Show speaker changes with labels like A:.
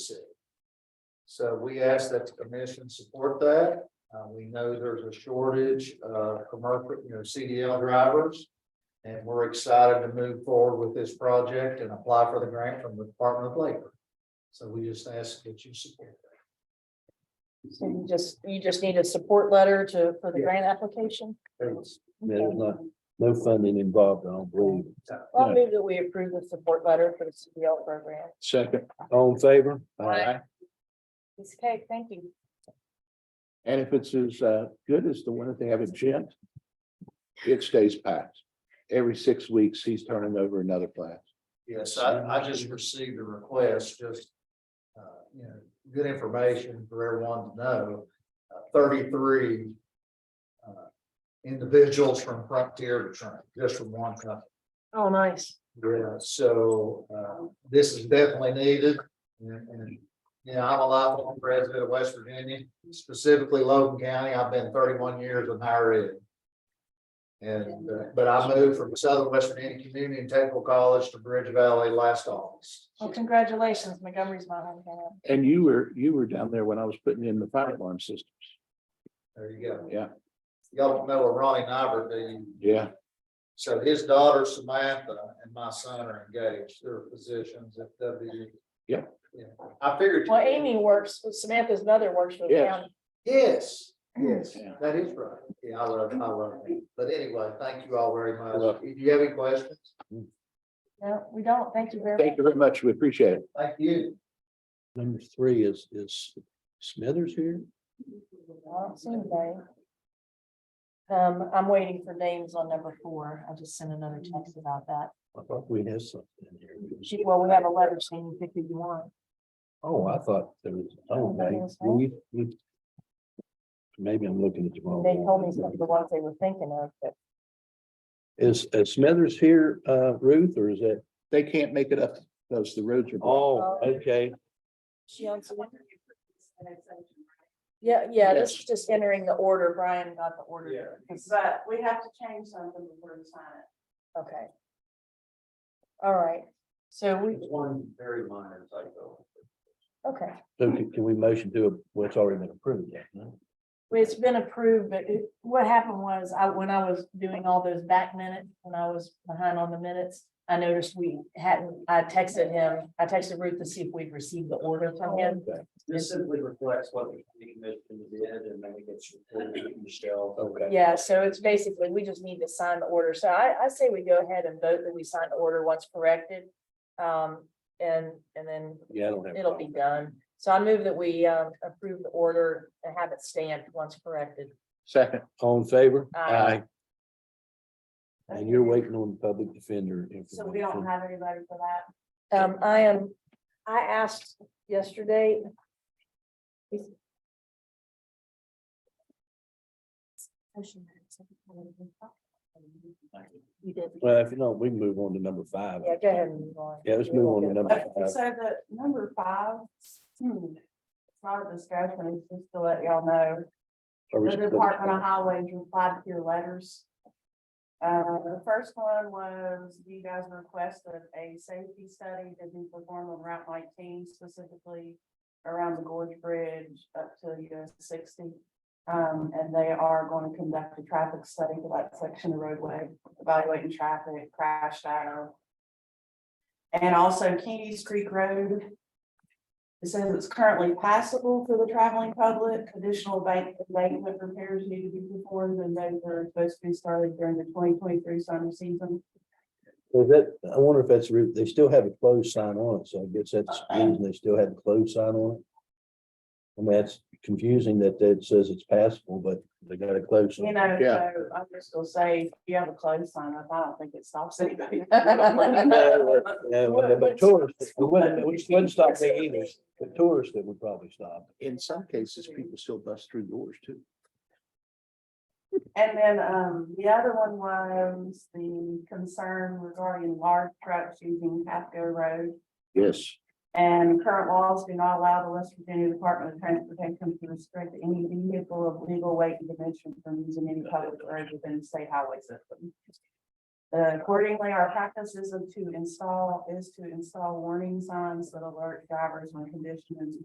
A: So we ask that the commission support that. Uh, we know there's a shortage of commercial, you know, CDL drivers. And we're excited to move forward with this project and apply for the grant from the Department of Labor. So we just ask that you support that.
B: So you just, you just need a support letter to, for the
A: Yeah.
B: grant application?
A: Thanks.
C: There's
B: Okay.
C: not, no funding involved, I don't believe.
B: I'll move that we approve the support letter for the CDL program.
D: Second.
C: All in favor?
B: Ms. Kay, thank you.
D: And if it's as uh good as the one that they have at Gent. It stays packed. Every six weeks, he's turning over another class.
A: Yes, I, I just received a request, just, uh, you know, good information for everyone to know. Uh, Thirty-three uh, individuals from Frontier to Trent, just from one company.
B: Oh, nice.
A: Yeah, so, uh, this is definitely needed. And, and, you know, I'm a lifelong resident of West Virginia, specifically Logan County. I've been thirty-one years in higher ed. And, uh, but I moved from Southern West Virginia Community and Technical College to Bridge Valley last August.
B: Well, congratulations, Montgomery's my hometown.
D: And you were, you were down there when I was putting in the fire alarm system.
A: There you go.
D: Yeah.
A: Y'all don't know a Ronnie Nyberg, do you?
D: Yeah.
A: So his daughter Samantha and my son are engaged. They're physicians at W.
D: Yeah.
A: Yeah, I figured.
B: Well, Amy works, Samantha's mother works for the
D: Yes.
B: county.
A: Yes, yes,
D: Yeah.
A: that is right. Yeah, I love, I love it. But anyway, thank you all very much.
D: Welcome.
A: Do you have any questions?
B: No, we don't. Thank you very much.
D: Thank you very much. We appreciate it.
A: Thank you.
C: Number three is, is Smithers here?
B: I don't see anybody. Um, I'm waiting for names on number four. I just sent another text about that.
C: I thought we had something in here.
B: She, well, we have a letter saying pick who you want.
C: Oh, I thought there was, oh, now, we, we. Maybe I'm looking at the wrong.
B: They told me
C: one.
B: some of the ones they were thinking of, but
C: Is, is Smithers here, uh, Ruth, or is that,
D: They can't make it up because the roads are.
C: oh, okay,
B: she owns. Yeah, yeah, this is just entering the order. Brian got the order. Because-
E: But we have to change something before we sign it.
B: Okay. All right, so we,
A: It's one very minor typo.
B: okay,
C: so can can we motion to, what's already been approved? yeah, no?
B: Well, it's been approved, but it- what happened was I, when I was doing all those back minutes, when I was behind on the minutes. I noticed we hadn't, I texted him, I texted Ruth to see if we'd received the order from him.
F: This simply reflects what the commission did and then it gets reported to Michelle.
C: Okay,
B: Yeah, so it's basically, we just need to sign the order. So I, I say we go ahead and vote that we sign the order once corrected. Um, and, and then
C: yeah, I don't have. a
B: it'll be done. So I move that we, um, approve the order and have it stamped once corrected.
D: Second.
C: All in favor?
B: Aye.
C: And you're waiting on public defender.
E: So we don't
C: information.
E: have anybody for that.
B: Um, I am, I asked yesterday. You did.
C: Well, if you don't, we can move on to number five.
B: Yeah, go ahead and move on.
C: Yeah, let's move on to number
E: But-
C: five.
E: So the number five, hmm, it's not a discussion, it's just to let y'all know.
C: Are we
E: The
C: still-
E: Department of Highways replied to your letters. Uh, the first one was you guys requested a safety study to be performed on Route nineteen specifically around the Gorge Bridge up to US sixty. Um, and they are going to conduct a traffic study for that section of roadway, evaluating traffic, crash data. And also Keys Creek Road, it says it's currently passable for the traveling public. Additional bank, embankment repairs need to be performed and those are supposed to be started during the twenty twenty-three summer season.
C: Is that, I wonder if that's, re- they still have a closed sign on it, so I guess that's the reason they still have a closed sign on it. I mean, that's confusing that that says it's passable, but they got a closed.
E: You
C: sign.
E: know,
D: Yeah.
E: so I'm just gonna say, if you have a closed sign up, I don't think it stops anybody.
C: Yeah, well, but tourists, it wouldn't, we wouldn't stop there either. The tourists that would probably stop.
D: In some cases, people still bust through doors too.
E: And then, um, the other one was the concern regarding large trucks using Pasco Road.
D: Yes.
E: And current laws do not allow the West Virginia Department of Transportation to restrict any vehicle of legal weight and dimension from using any public road within the state highway system. Uh, Accordingly, our practice is to install, is to install warning signs that alert drivers when conditions